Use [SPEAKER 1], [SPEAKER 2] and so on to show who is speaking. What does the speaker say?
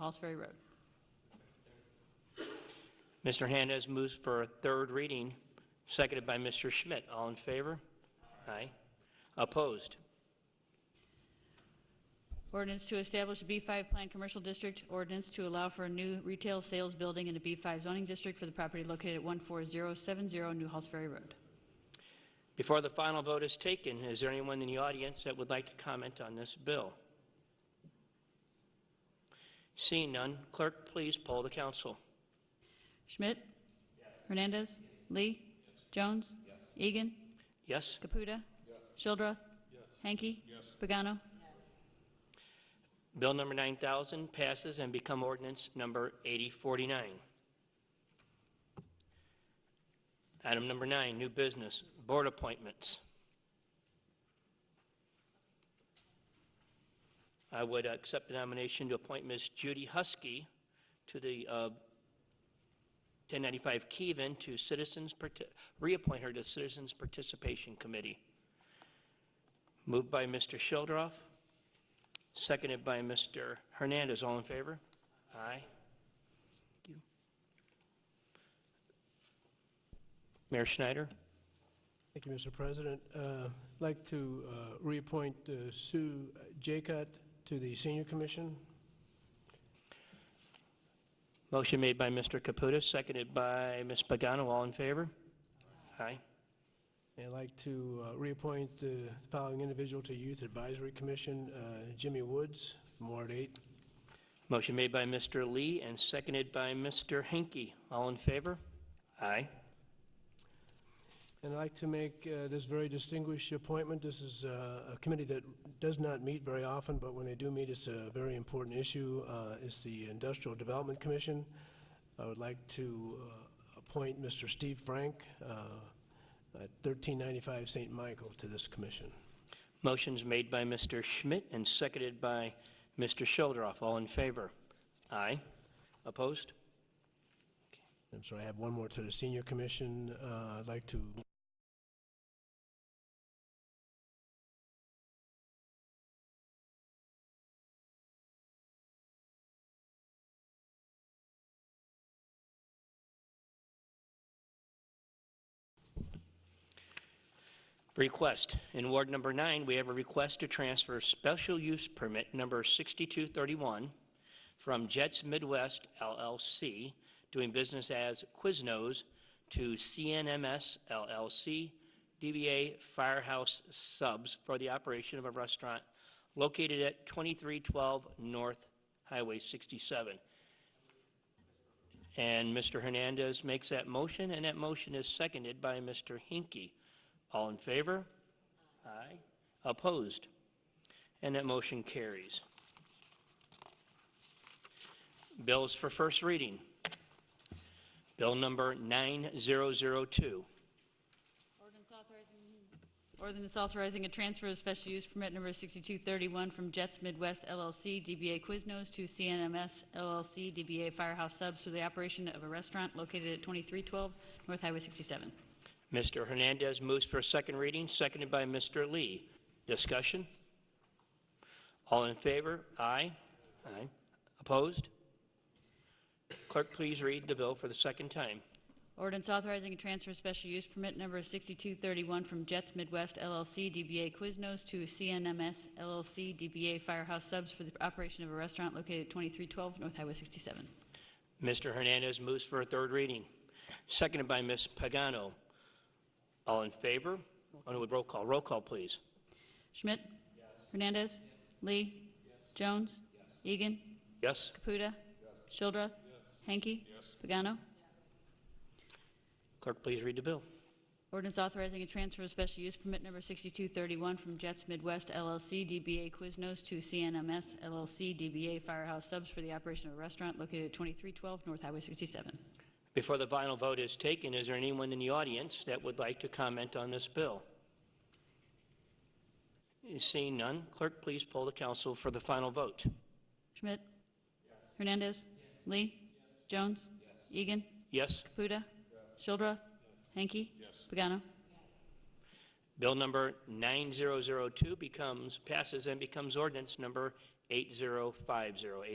[SPEAKER 1] Falls Ferry Road.
[SPEAKER 2] Mr. Hernandez moves for a third reading, seconded by Mr. Schmidt. All in favor? Aye. Opposed?
[SPEAKER 1] Ordinance to establish a B5 planned commercial district. Ordinance to allow for a new retail sales building in a B5 zoning district for the property located at 14070 New Halls Ferry Road.
[SPEAKER 2] Before the final vote is taken, is there anyone in the audience that would like to comment on this bill? Seeing none, clerk, please poll the council.
[SPEAKER 1] Schmidt? Hernandez? Lee? Jones? Egan?
[SPEAKER 2] Yes?
[SPEAKER 1] Caputa? Shildroth? Hanky? Pagano?
[SPEAKER 2] Bill number 9,000 passes and become ordinance number 8049. Item number nine, new business, board appointments. I would accept the nomination to appoint Ms. Judy Husky to the uh, 1095 Keven to Citizens, Parti- reappoint her to Citizens Participation Committee. Moved by Mr. Shildroff. Seconded by Mr. Hernandez. All in favor? Aye. Thank you. Mayor Schneider?
[SPEAKER 3] Thank you, Mr. President. Uh, I'd like to uh, reappoint uh, Sue Jacut to the Senior Commission.
[SPEAKER 2] Motion made by Mr. Caputa, seconded by Ms. Pagano. All in favor? Aye.
[SPEAKER 3] And I'd like to uh, reappoint the following individual to Youth Advisory Commission, uh, Jimmy Woods, from Ward 8.
[SPEAKER 2] Motion made by Mr. Lee and seconded by Mr. Henke. All in favor? Aye.
[SPEAKER 3] And I'd like to make uh, this very distinguished appointment. This is uh, a committee that does not meet very often, but when they do meet, it's a very important issue. Uh, It's the Industrial Development Commission. I would like to uh, appoint Mr. Steve Frank uh, at 1395 St. Michael to this commission.
[SPEAKER 2] Motion's made by Mr. Schmidt and seconded by Mr. Shildroff. All in favor? Aye. Opposed?
[SPEAKER 3] I'm sorry, I have one more to the Senior Commission. Uh, I'd like to
[SPEAKER 2] Request. In Ward Number 9, we have a request to transfer Special Use Permit Number 6231 from Jets Midwest LLC, doing business as Quiznos, to CNMS LLC, DBA Firehouse Subs, for the operation of a restaurant located at 2312 North Highway 67. And Mr. Hernandez makes that motion, and that motion is seconded by Mr. Hinkie. All in favor? Aye. Opposed? And that motion carries. Bills for first reading. Bill number 9002.
[SPEAKER 1] Ordinance authorizing- Ordinance authorizing a transfer of special use permit number 6231 from Jets Midwest LLC, DBA Quiznos, to CNMS LLC, DBA Firehouse Subs, for the operation of a restaurant located at 2312 North Highway 67.
[SPEAKER 2] Mr. Hernandez moves for second reading, seconded by Mr. Lee. Discussion? All in favor? Aye. Aye. Opposed? Clerk, please read the bill for the second time.
[SPEAKER 1] Ordinance authorizing a transfer of special use permit number 6231 from Jets Midwest LLC, DBA Quiznos, to CNMS LLC, DBA Firehouse Subs, for the operation of a restaurant located at 2312 North Highway 67.
[SPEAKER 2] Mr. Hernandez moves for a third reading, seconded by Ms. Pagano. All in favor? On with roll call. Roll call, please.
[SPEAKER 1] Schmidt? Hernandez? Lee? Jones? Egan?
[SPEAKER 2] Yes?
[SPEAKER 1] Caputa? Shildroth? Hanky? Pagano?
[SPEAKER 2] Clerk, please read the bill.
[SPEAKER 1] Ordinance authorizing a transfer of special use permit number 6231 from Jets Midwest LLC, DBA Quiznos, to CNMS LLC, DBA Firehouse Subs, for the operation of a restaurant located at 2312 North Highway 67.
[SPEAKER 2] Before the final vote is taken, is there anyone in the audience that would like to comment on this bill? Seeing none, clerk, please poll the council for the final vote.
[SPEAKER 1] Schmidt? Hernandez? Lee? Jones? Egan?
[SPEAKER 2] Yes?
[SPEAKER 1] Caputa? Shildroth? Hanky? Pagano?
[SPEAKER 2] Bill number 9002 becomes, passes and becomes ordinance number 8050.